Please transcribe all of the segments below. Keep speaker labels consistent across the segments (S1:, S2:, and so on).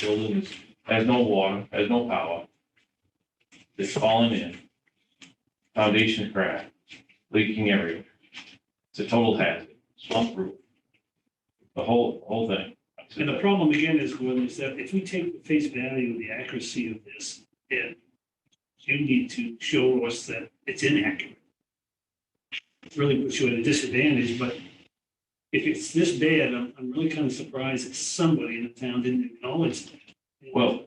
S1: building is, has no water, has no power. It's falling in. Foundation crack, leaking area. It's a total hazard, slump roof. The whole, whole thing.
S2: And the problem again is, Gordon, is that if we take the face value of the accuracy of this, and you need to show us that it's inaccurate. It Really puts you at a disadvantage, but if it's this bad, I'm, I'm really kind of surprised that somebody in the town didn't acknowledge. that.
S1: Well.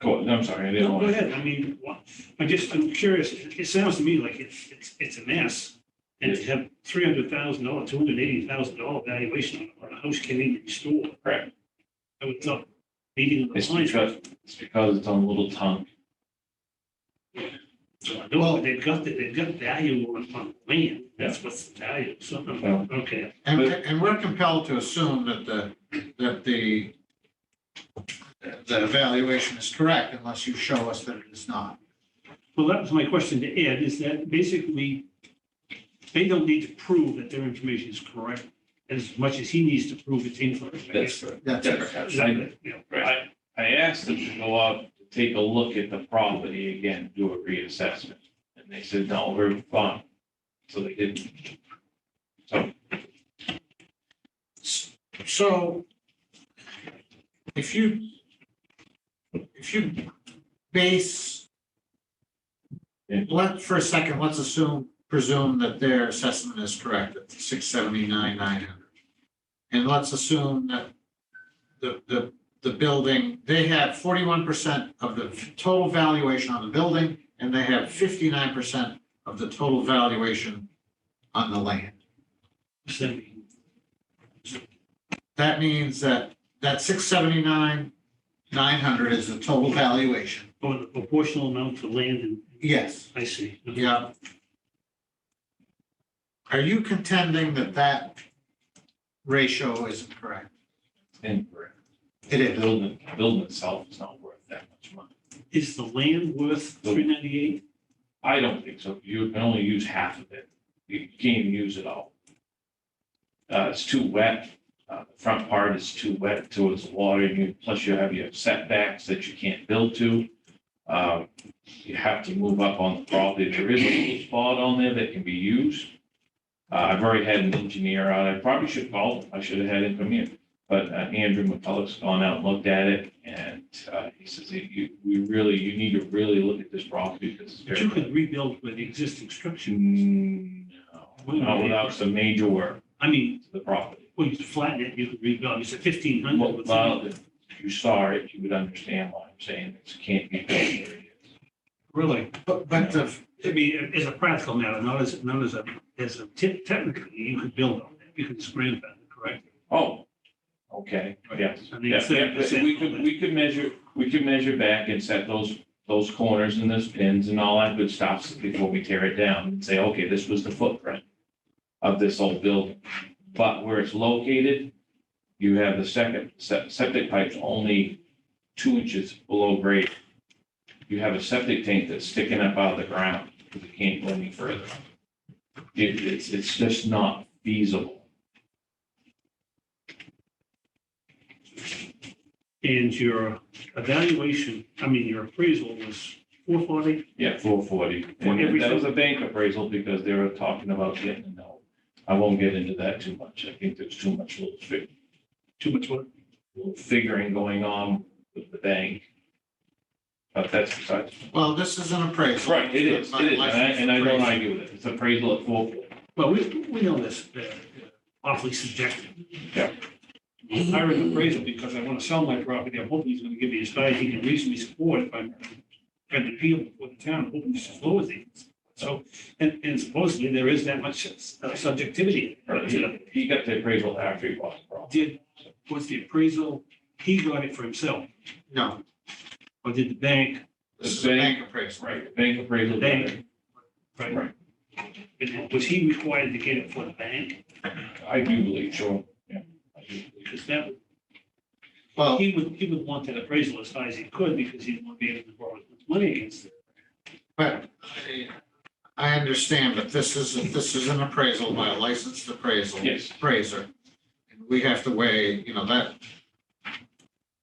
S1: Go, I'm sorry, I didn't
S2: No, Go
S1: want,
S2: ahead, I mean, what- I'm just, I'm curious, it it sounds to me like it's, it's, it's a mess. And to have three hundred thousand dollar, two hundred eighty thousand dollar valuation on a house can't even restore.
S1: Correct.
S2: I would thought meeting of the
S1: it's
S2: clients.
S1: because, it's because it's on a little tongue.
S2: No, they've got, the- they've got value on, on land, that's what's the value, so,
S1: Well-
S2: okay.
S3: And, and we're compelled to assume that the, that the, the evaluation is correct unless you show us that it is not.
S2: Well, that was my question to Ed, is that basically, they don't need to prove that their information is correct as much as he needs to prove it's incorrect. I guess.
S1: right.
S3: That's it.
S2: Is that- yeah, right.
S1: I, I asked them to go out to take a look at the property again, do a reassessment, and they said, no, we're fine. So they didn't. So,
S3: So if you, if you base,
S1: Yeah.
S3: let, for a second, let's assume, presume that their assessment is correct at six seventy-nine, nine hundred. And let's assume that the, the, the building, they have forty-one percent of the total valuation on the building, and they have fifty-nine percent of the total valuation on the land.
S2: Seventy.
S3: That means that, that six seventy-nine, nine hundred is the total valuation.
S2: Oh, the proportional amount to land and,
S3: Yes.
S2: I see.
S3: Yeah. Are you contending that that ratio isn't correct?
S1: incorrect.
S3: It
S1: The building, the building itself is not worth that much money.
S2: Is the land worth three ninety-eight?
S1: I don't think so. You can only use half of it. You can't even use it all. Uh, it's too wet. Uh, the front part is too wet towards the water. You, plus you have your setbacks that you can't build to. Um, you have to move up on the property. There is a little spot on there that can be used. Uh, I've already had an engineer out. I probably should call. I should have had him come in. But uh, Andrew McCullough's gone out and looked at it and, uh, he says, you, we really, you need to really look at this property because it's
S2: But
S1: very.
S2: you could rebuild with the existing structure.
S1: Mm, No, not without some major work
S2: I mean,
S1: to the property.
S2: when you flatten it, you could rebuild, you said fifteen
S1: Well,
S2: hundred.
S1: well, if you saw it, you would understand why I'm saying this can't be built where it is.
S2: Really,
S3: But, but the,
S2: I mean, as a practical matter, not as, not as a, as a tip, technically, you could build on that, you could just grandfather, correct?
S1: Oh, okay, yes.
S2: I mean,
S1: Yeah, yeah, but
S2: percent.
S1: We could, we could measure, we could measure back and set those, those corners and those pins and all that good stuff before we tear it down and say, okay, this was the footprint of this old building. But where it's located, you have the second, se- septic pipe's only two inches below grade. You have a septic tank that's sticking up out of the ground, because it can't go any further. It, it's, it's just not feasible.
S2: And your evaluation, I mean, your appraisal was four forty,
S1: Yeah, four forty.
S2: For every-
S1: And that was a bank appraisal because they were talking about getting a note. I won't get into that too much. I think there's too much little fig-
S2: too much work.
S1: little figuring going on with the bank. But that's besides.
S3: well, this is an appraisal.
S1: Right, it is, it is. And I, and I don't argue with it. It's appraisal at four forty.
S2: Well, we, we know this, uh, awfully subjective.
S1: Yeah.
S2: I hired an appraisal because I want to sell my property. I'm hoping he's going to give me as high as he can reasonably support if I'm going to appeal before the town, I'm hoping it's as low as he. can. So, and, and supposedly there is that much uh, subjectivity. Uh,
S1: He- He got the appraisal after he bought the property.
S2: Did, was the appraisal, he got it for himself,
S3: No,
S2: or did the bank?
S3: this is a bank appraisal.
S1: Right, the bank appraisal.
S2: The bank.
S1: Right.
S2: And Was he required to get it for the bank?
S1: I do believe, sure. Yeah. I do believe.
S2: Because that,
S3: Well,
S2: he would, he would want that appraisal as high as he could because he would be able to borrow as much money against it.
S3: But I- I understand, but this is, this is an appraisal by a licensed appraisal.
S1: Yes.
S3: Appraiser. And We have to weigh, you know, that,